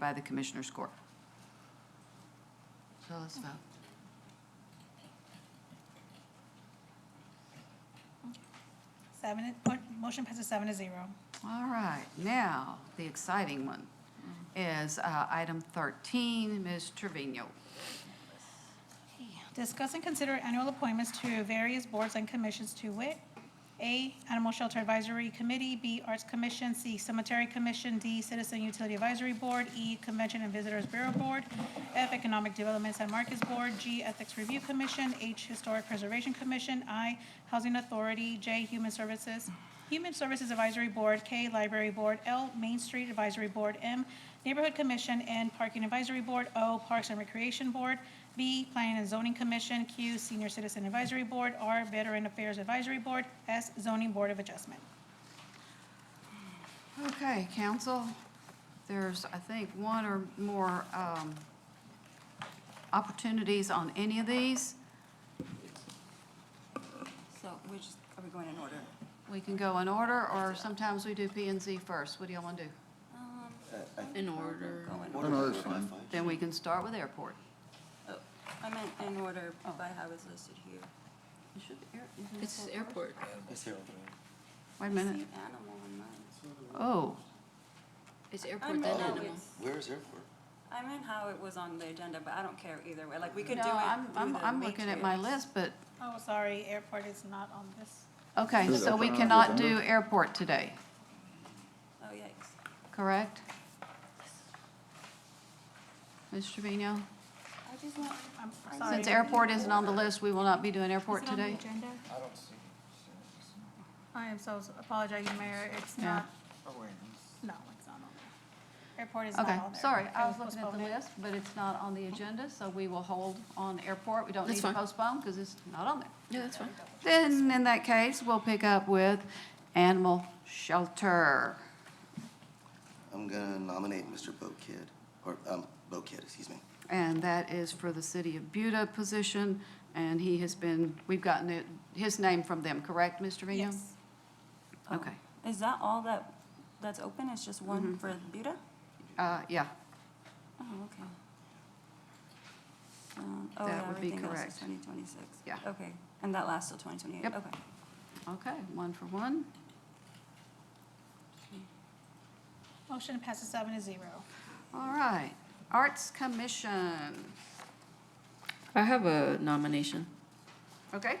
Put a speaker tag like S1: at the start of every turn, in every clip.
S1: by the Commissioners Court. So let's vote.
S2: Seven, mo- motion passes seven to zero.
S1: All right, now, the exciting one is uh, item 13, Ms. Trevino.
S2: Discuss and consider annual appointments to various boards and commissions to wit, A, Animal Shelter Advisory Committee, B, Arts Commission, C, Cemetery Commission, D, Citizen Utility Advisory Board, E, Convention and Visitors Bureau Board, F, Economic Development San Marcos Board, G, Ethics Review Commission, H, Historic Preservation Commission, I, Housing Authority, J, Human Services, Human Services Advisory Board, K, Library Board, L, Main Street Advisory Board, M, Neighborhood Commission and Parking Advisory Board, O, Parks and Recreation Board, B, Planning and Zoning Commission, Q, Senior Citizen Advisory Board, R, Veteran Affairs Advisory Board, S, Zoning Board of Adjustment.
S1: Okay, council, there's, I think, one or more um, opportunities on any of these.
S3: So we're just, are we going in order?
S1: We can go in order, or sometimes we do P and Z first. What do y'all want to do?
S4: In order.
S3: Go
S5: No,
S3: in order.
S5: no, that's fine.
S1: Then we can start with airport.
S3: Oh, I meant in order by how it's listed here.
S1: You should- air- you can-
S4: It's airport.
S1: Wait a
S3: I see
S1: minute.
S3: an Animal in mine.
S1: Oh,
S4: It's
S3: I
S4: airport,
S3: meant
S4: then
S3: how
S4: animal.
S3: it's-
S5: Where is airport?
S3: I meant how it was on the agenda, but I don't care either way. Like, we could do
S1: no,
S3: it
S1: I'm,
S3: through
S1: I'm,
S3: the
S1: I'm looking at my
S3: matrix.
S1: list, but,
S2: Oh, sorry, airport is not on this.
S1: okay,
S5: Is it
S1: so
S5: up
S1: we
S5: and out,
S1: cannot
S5: down?
S1: do airport today,
S3: Oh, yikes.
S1: correct? Ms. Trevino?
S3: I just want,
S2: I'm
S3: Since
S2: sorry.
S1: Since airport isn't on the list, we will not be doing
S2: Is
S1: airport
S2: it on the
S1: today.
S2: agenda? I am so, s- apologize, Mayor, it's
S1: Yeah.
S2: not, no, it's not on there. Airport is not on
S1: Okay,
S2: there.
S1: sorry,
S2: It
S1: I was looking at the
S2: postponed.
S1: list, but it's not on the agenda, so we will hold on airport. We don't
S4: That's
S1: need to
S4: fine.
S1: postpone because it's not on there.
S4: Yeah, that's fine.
S1: Then, in that case, we'll pick up with animal shelter.
S5: I'm gonna nominate Mr. Bo Kid, or, um, Bo Kid, excuse me.
S1: And that is for the City of Buda position, and he has been, we've gotten it- his name from them, correct, Mr. Trevino?
S2: Yes.
S1: Okay,
S3: is that all that, that's open? It's just
S1: Mm-hmm.
S3: one for Buda?
S1: uh, yeah,
S3: Oh, okay. Um, Oh,
S1: That
S3: yeah,
S1: would be
S3: everything else
S1: correct.
S3: is twenty twenty-six.
S1: Yeah.
S3: Okay, and that lasts till twenty twenty-eight?
S1: Yep.
S3: Okay.
S1: okay, one for one.
S2: Motion passes seven to zero.
S1: All right, Arts Commission,
S4: I have a nomination.
S1: okay?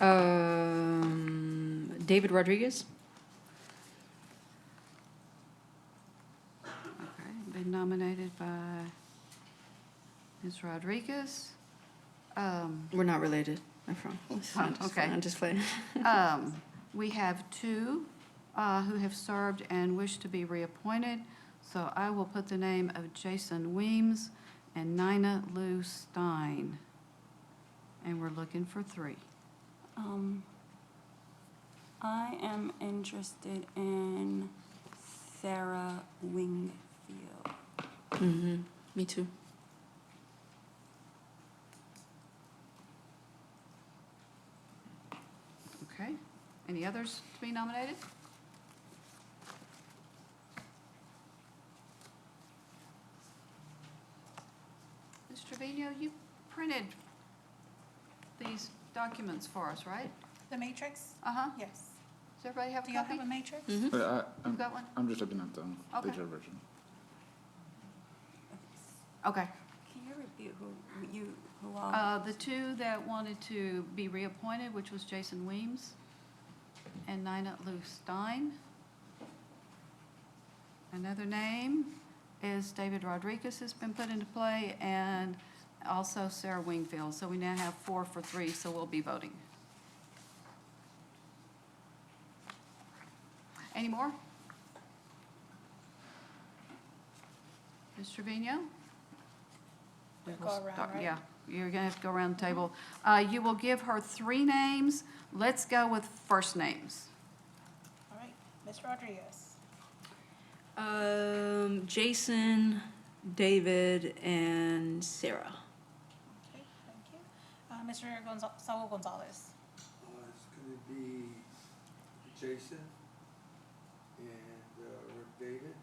S4: Um, David Rodriguez?
S1: Okay, been nominated by Ms. Rodriguez. Um,
S4: We're not related. I'm from.
S1: fine. Okay.
S4: I'm just playing.
S1: um, We have two uh, who have served and wish to be reappointed, so I will put the name of Jason Weems and Nina Lou Stein. And we're looking for three.
S3: Um, I am interested in Sarah Wingfield.
S4: Mm-hmm. Me too.
S1: Okay, any others to be nominated? Ms. Trevino, you printed these documents for us, right?
S2: The matrix?
S1: Uh-huh,
S2: Yes.
S1: does everybody have a
S2: Do y'all
S1: copy?
S2: have a matrix?
S4: Mm-hmm.
S6: But I,
S1: You've
S6: I'm,
S1: got one?
S6: I'm just looking at the
S1: Okay.
S6: digital version.
S1: Okay,
S3: Can you repeat who you, who all?
S1: uh, the two that wanted to be reappointed, which was Jason Weems and Nina Lou Stein. Another name is David Rodriguez has been put into play, and also Sarah Wingfield. So we now have four for three, so we'll be voting. Any more? Ms. Trevino? We
S2: We'll
S1: will
S2: go around,
S1: start-
S2: right?
S1: Yeah, you're gonna have to go around the table. Uh, you will give her three names. Let's go with first names.
S2: All right, Ms. Rodriguez.
S4: Um, Jason, David, and Sarah.
S2: Okay, thank you. Uh, Mr. Gonzal- Saul Gonzalez.
S7: Uh, it's gonna be Jason and, uh, Rick David.